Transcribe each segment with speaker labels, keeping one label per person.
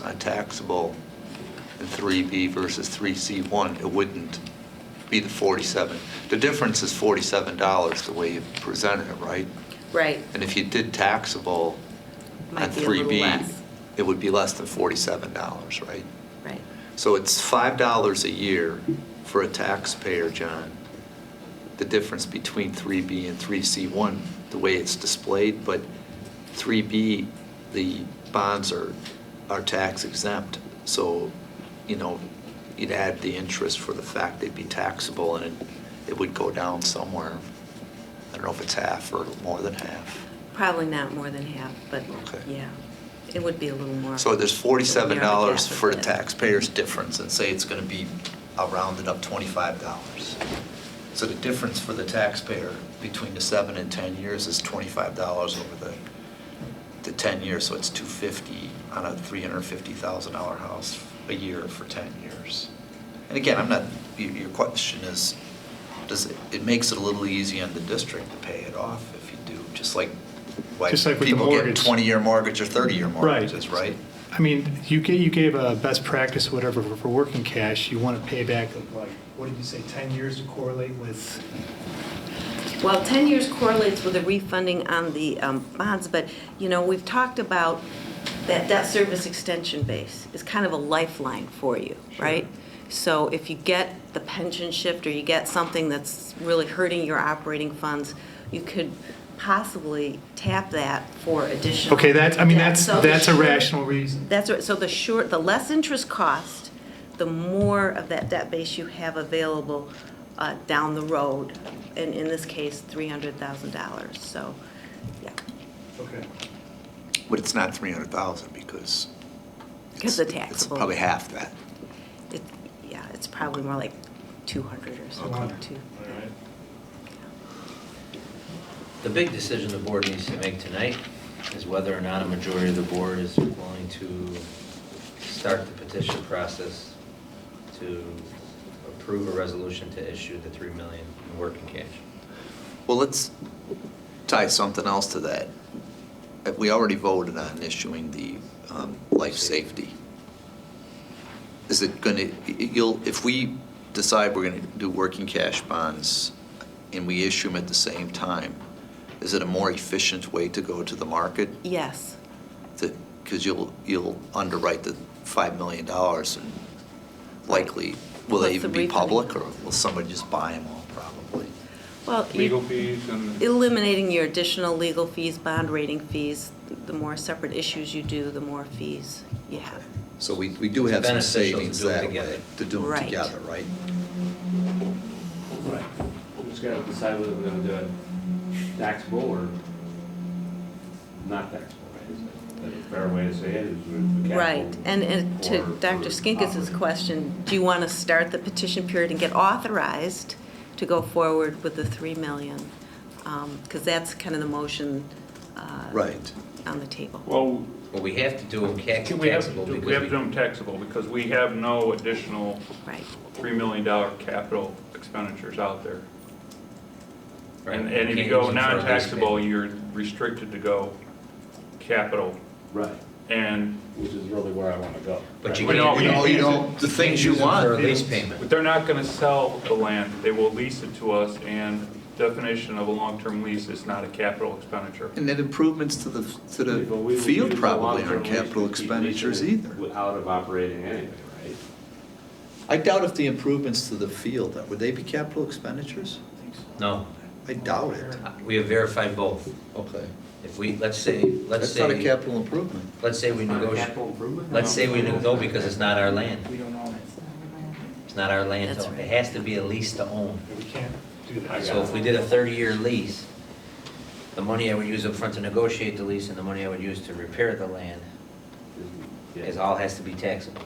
Speaker 1: uh, taxable in 3B versus 3C1, it wouldn't be the 47. The difference is $47, the way you presented it, right?
Speaker 2: Right.
Speaker 1: And if you did taxable on
Speaker 2: Might be a little
Speaker 1: 3B,
Speaker 2: less.
Speaker 1: it would be less than $47, right?
Speaker 2: Right.
Speaker 1: So it's $5 a year for a taxpayer, John, the difference between 3B and 3C1, the way it's displayed, but 3B, the bonds are, are tax exempt, so, you know, you'd add the interest for the fact they'd be taxable, and it- it would go down somewhere. I don't know if it's half or more than half.
Speaker 2: Probably not more than half, but
Speaker 1: Okay.
Speaker 2: yeah, it would be a little more.
Speaker 1: So there's forty-seven
Speaker 2: Near
Speaker 1: dollars
Speaker 2: half of
Speaker 1: for the
Speaker 2: it.
Speaker 1: taxpayer's difference, and say it's gonna be, I'll round it up twenty-five dollars. So the difference for the taxpayer between the seven and ten years is twenty-five dollars over the, the ten years, so it's two fifty on a three hundred and fifty thousand dollar house a year for ten years. And again, I'm not, your, your question is, does, it it makes it a little easy on the district to pay it off if you do, just like, why
Speaker 3: Just like with the
Speaker 1: people get
Speaker 3: mortgage.
Speaker 1: twenty-year mortgage or thirty-year
Speaker 3: Right.
Speaker 1: mortgages, right?
Speaker 3: I mean, you gave, you gave a best practice, whatever, for- for working cash, you want to pay back, like, what did you say, 10 years to correlate with?
Speaker 2: Well, 10 years correlates with the refunding on the um, bonds, but, you know, we've talked about that debt service extension base is kind of a lifeline for you, right? So if you get the pension shift or you get something that's really hurting your operating funds, you could possibly tap that for additional.
Speaker 3: Okay, that's, I mean,
Speaker 2: debt.
Speaker 3: that's,
Speaker 2: So the
Speaker 3: that's a
Speaker 2: short-
Speaker 3: rational reason.
Speaker 2: That's right, so the short, the less interest cost, the more of that debt base you have available uh, down the road, and in this case, $300,000, so, yeah.
Speaker 3: Okay.
Speaker 1: But it's not three hundred thousand because.
Speaker 2: Because
Speaker 1: it's-
Speaker 2: the
Speaker 1: It's
Speaker 2: taxable.
Speaker 1: probably half that.
Speaker 2: It- Yeah, it's probably more like 200 or something, too.
Speaker 4: The big decision the board needs to make tonight is whether or not a majority of the board is willing to start the petition process to approve a resolution to issue the three million in working cash.
Speaker 1: Well, let's tie something else to that. Uh, We already voted on issuing the um, life safety. Is it going to, you'll, if we decide we're going to do working cash bonds and we issue them at the same time, is it a more efficient way to go to the market?
Speaker 2: Yes,
Speaker 1: because you'll, you'll underwrite the $5 million and likely, will
Speaker 2: What's
Speaker 1: they even
Speaker 2: the
Speaker 1: be
Speaker 2: refunding?
Speaker 1: public or will somebody just buy them all probably?
Speaker 2: well, you-
Speaker 5: legal fees and.
Speaker 2: eliminating your additional legal fees, bond rating fees, the more separate issues you do, the more fees you have.
Speaker 1: So we, we do
Speaker 4: It's
Speaker 1: have some
Speaker 4: beneficial to
Speaker 1: savings
Speaker 4: do 'em
Speaker 1: that
Speaker 4: together.
Speaker 1: way, to do them
Speaker 2: Right.
Speaker 1: together, right?
Speaker 5: Right. We just gotta decide whether we're gonna do it taxable or not taxable, right? Is that a fair way to say it? Is with the
Speaker 2: Right,
Speaker 5: capital
Speaker 2: and, and to
Speaker 5: or-
Speaker 2: Dr. Skinkis's question, do you want to start the petition period and get authorized to go forward with the 3 million? Because that's kind of the motion uh,
Speaker 1: Right.
Speaker 2: on the table.
Speaker 5: Well,
Speaker 4: Well, we have to do them ca-
Speaker 5: we have to
Speaker 4: taxable
Speaker 5: do,
Speaker 4: because
Speaker 5: we have to do
Speaker 4: we,
Speaker 5: them taxable because we have no additional
Speaker 2: Right,
Speaker 5: three million dollar capital expenditures out there.
Speaker 4: Right.
Speaker 5: And, and if
Speaker 4: Can't
Speaker 5: you go
Speaker 4: use them for a lease
Speaker 5: non-taxable,
Speaker 4: payment.
Speaker 5: you're restricted to go capital
Speaker 6: Right,
Speaker 5: and.
Speaker 6: which is really where I want to go.
Speaker 4: but you
Speaker 5: Well, no,
Speaker 4: can't.
Speaker 5: we-
Speaker 1: No, you don't, the things you
Speaker 4: use them For a
Speaker 1: want.
Speaker 4: lease
Speaker 5: But
Speaker 4: payment.
Speaker 5: they're not gonna sell the land, they will lease it to us, and definition of a long-term lease is not a capital expenditure.
Speaker 1: And then improvements to the, to
Speaker 6: But we will
Speaker 1: the
Speaker 6: use
Speaker 1: field
Speaker 6: the
Speaker 1: probably
Speaker 6: long-term
Speaker 1: aren't capital
Speaker 6: lease to keep leasing
Speaker 1: expenditures
Speaker 6: it
Speaker 1: either.
Speaker 6: Out of operating anyway, right?
Speaker 1: I doubt if the improvements to the field, would they be capital expenditures?
Speaker 4: No,
Speaker 1: I doubt it.
Speaker 4: we have verified both.
Speaker 1: Okay.
Speaker 4: If we, let's say, let's
Speaker 1: That's not a
Speaker 4: say,
Speaker 1: capital improvement.
Speaker 4: let's say we negotiate,
Speaker 6: improvement?
Speaker 4: let's say we, ne- no, because it's not our land.
Speaker 3: We don't own it.
Speaker 4: It's not our land
Speaker 2: That's
Speaker 4: to own.
Speaker 2: right.
Speaker 4: It has to be a lease to own.
Speaker 3: We can't do that.
Speaker 4: So if we did a 30-year lease, the money I would use up front to negotiate the lease and the money I would use to repair the land is all has to be taxable,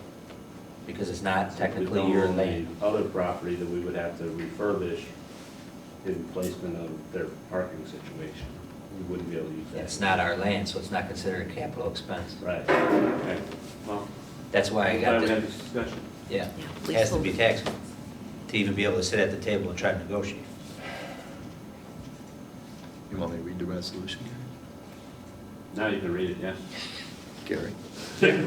Speaker 4: because it's not technically your land.
Speaker 6: Other property that we would have to refurbish in placement of their parking situation. We wouldn't be able to use that.
Speaker 4: It's not our land, so it's not considered a capital expense.
Speaker 6: Right, okay, well.
Speaker 4: That's why I got
Speaker 5: Glad we had
Speaker 4: the,
Speaker 5: this discussion.
Speaker 4: yeah, it
Speaker 2: Yeah,
Speaker 4: has to be
Speaker 2: leasehold.
Speaker 4: taxable to even be able to sit at the table and try to negotiate.
Speaker 1: You want me to read the resolution,
Speaker 6: Now you can read it, yeah?
Speaker 1: Gary?